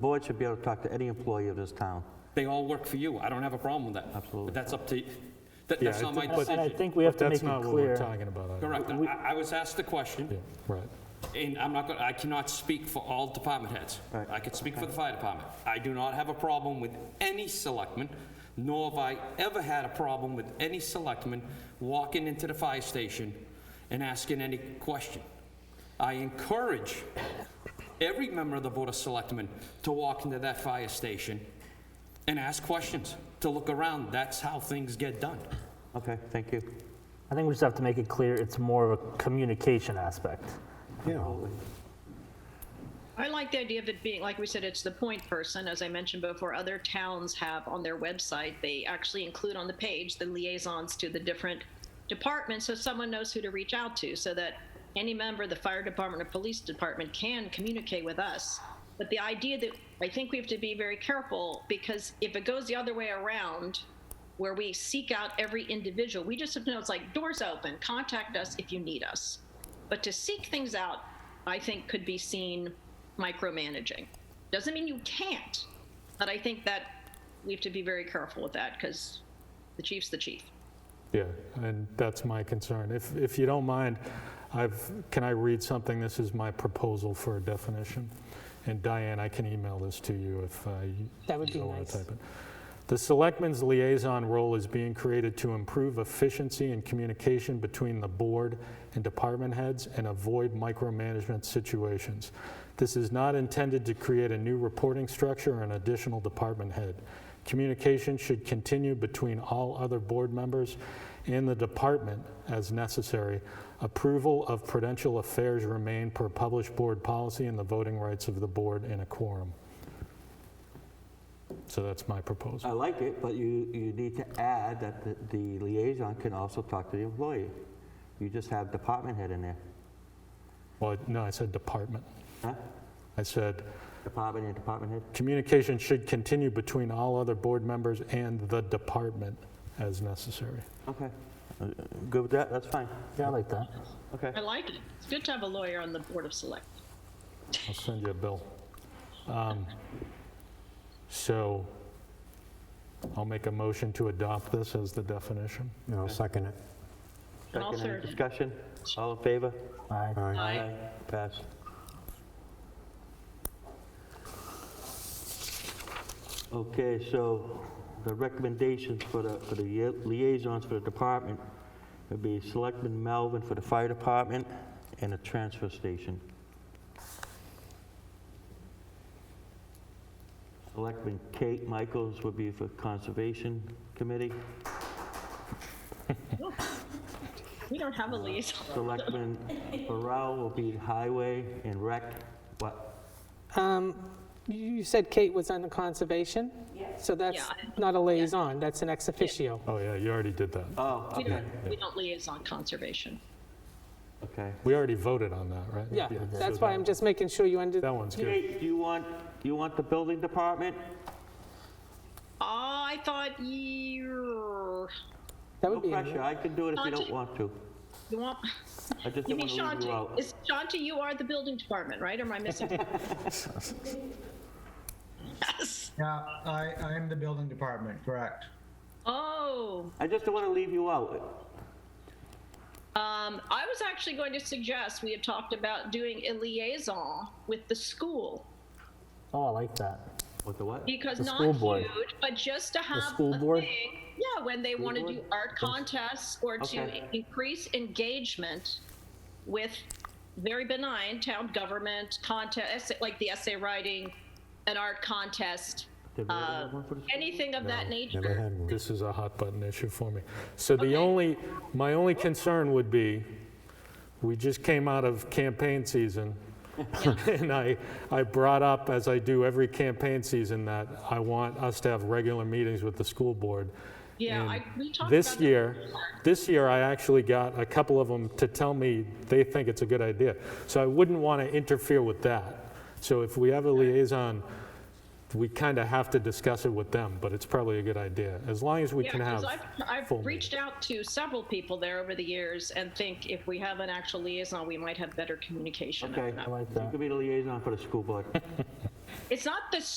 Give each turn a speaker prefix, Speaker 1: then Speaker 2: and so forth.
Speaker 1: Board should be able to talk to any employee of this town.
Speaker 2: They all work for you. I don't have a problem with that.
Speaker 1: Absolutely.
Speaker 2: But that's up to, that,
Speaker 3: Yeah,
Speaker 2: that's not
Speaker 3: I
Speaker 2: my
Speaker 3: think- but-
Speaker 4: And I
Speaker 2: decision.
Speaker 4: think we have to make
Speaker 3: That's
Speaker 4: it
Speaker 3: not what we're
Speaker 4: clear.
Speaker 3: talking about. I-
Speaker 2: Correct. I, I was asked the question,
Speaker 3: Yeah, right.
Speaker 2: and I'm not, gonna- I cannot speak for all department heads.
Speaker 1: Right.
Speaker 2: I could speak for the fire department. I do not have a problem with any selectman, nor have I ever had a problem with any selectman walking into the fire station and asking any question. I encourage every member of the Board of Selectmen to walk into that fire station and ask questions, to look around. That's how things get done.
Speaker 1: Okay, thank you.
Speaker 4: I think we just have to make it clear it's more of a communication aspect.
Speaker 5: I like the idea of it being, like we said, it's the point person. As I mentioned before, other towns have on their website, they actually include on the page the liaisons to the different departments so someone knows who to reach out to so that any member of the fire department or police department can communicate with us. But the idea that I think we have to be very careful because if it goes the other way around, where we seek out every individual, we just have to know it's like doors open, contact us if you need us. But to seek things out, I think could be seen micromanaging. Doesn't mean you can't, but I think that we have to be very careful with that because the chief's the chief.
Speaker 3: Yeah, and that's my concern. If, if you don't mind, I've, can I read something? This is my proposal for a definition. And Diane, I can email this to you if uh, you
Speaker 6: That would be
Speaker 3: don't want
Speaker 6: nice.
Speaker 3: to type it. The selectman's liaison role is being created to improve efficiency and communication between the board and department heads and avoid micromanagement situations. This is not intended to create a new reporting structure or an additional department head. Communication should continue between all other board members and the department as necessary. Approval of prudential affairs remain per published board policy and the voting rights of the board in a quorum. So that's my proposal.
Speaker 1: I like it, but you, you need to add that the- the liaison can also talk to the employee. You just have department head in there,
Speaker 3: Well, no, I said department.
Speaker 1: huh?
Speaker 3: I said,
Speaker 1: Department and department head.
Speaker 3: communication should continue between all other board members and the department as necessary.
Speaker 1: Okay. Uh, uh, Good with that? That's fine.
Speaker 4: Yeah, I like that.
Speaker 1: Okay.
Speaker 5: I like it. It's good to have a lawyer on the board of select.
Speaker 3: I'll send you a bill. Um, So I'll make a motion to adopt this as the definition.
Speaker 7: No, I'll second it.
Speaker 5: And I'll
Speaker 1: Second, any
Speaker 5: third it.
Speaker 1: discussion? All in favor?
Speaker 4: All right.
Speaker 7: Aye.
Speaker 5: Aye.
Speaker 1: Pass. Okay, so the recommendations for the, for the ye- liaisons for the department would be Selectman Melvin for the fire department and the transfer station. Selectman Kate Michaels would be for conservation committee.
Speaker 5: We don't have a liaison.
Speaker 1: Selectman Burrell will be highway and rec, what?
Speaker 6: Um, You said Kate was on the conservation? So that's
Speaker 5: Yeah.
Speaker 6: not a liaison, that's an ex officio.
Speaker 3: Oh, yeah, you already did that.
Speaker 1: Oh,
Speaker 5: We
Speaker 1: okay,
Speaker 5: don't, we don't liaison conservation.
Speaker 1: okay.
Speaker 3: We already voted on that, right?
Speaker 6: Yeah,
Speaker 3: so
Speaker 6: that's why I'm just making sure you under,
Speaker 3: That one's good.
Speaker 1: Kate, do you want, you want the building department?
Speaker 5: I thought you,
Speaker 6: that
Speaker 1: No
Speaker 6: would be,
Speaker 1: pressure, I can do it if you don't
Speaker 5: Auntie.
Speaker 1: want to.
Speaker 5: you want,
Speaker 1: I just
Speaker 5: you
Speaker 1: don't
Speaker 5: mean
Speaker 1: want to leave you
Speaker 5: Shanti?
Speaker 1: out.
Speaker 5: Is Shanti, you are the building department, right? Or am I missing? Yes.
Speaker 8: Yeah, I, I'm the building department, correct.
Speaker 5: Oh,
Speaker 1: I just don't want to leave you out.
Speaker 5: Um, I was actually going to suggest we had talked about doing a liaison with the school
Speaker 4: Oh, I like that.
Speaker 1: What the what?
Speaker 5: because
Speaker 4: The
Speaker 5: not
Speaker 4: school board.
Speaker 5: huge, but just to have
Speaker 4: school
Speaker 5: a
Speaker 4: board?
Speaker 5: thing. Yeah, when they want to do
Speaker 1: board?
Speaker 5: art contests or
Speaker 1: Okay.
Speaker 5: to increase engagement with very benign town government contest, like the essay writing, an art contest,
Speaker 1: Did we ever
Speaker 5: uh,
Speaker 1: have one for the school?
Speaker 5: anything of that
Speaker 7: Never
Speaker 5: nature.
Speaker 7: had one.
Speaker 3: This is a hot button issue for me. So the
Speaker 5: Okay.
Speaker 3: only, my only concern would be, we just came out of campaign season, and I, I brought up, as I do every campaign season, that I want us to have regular meetings with the school board.
Speaker 5: Yeah,
Speaker 3: And
Speaker 5: I, we talked about
Speaker 3: This
Speaker 5: that
Speaker 3: year,
Speaker 5: before.
Speaker 3: this year, I actually got a couple of them to tell me they think it's a good idea. So I wouldn't want to interfere with that. So if we have a liaison, we kind of have to discuss it with them, but it's probably a good idea, as long as we
Speaker 5: Yeah,
Speaker 3: can have.
Speaker 5: because I've,
Speaker 3: full
Speaker 5: I've reached out to several people there over the years and think if we have an actual liaison, we might have better communication.
Speaker 1: Okay,
Speaker 5: open up.
Speaker 1: you can be the liaison for the school board.
Speaker 5: it's not the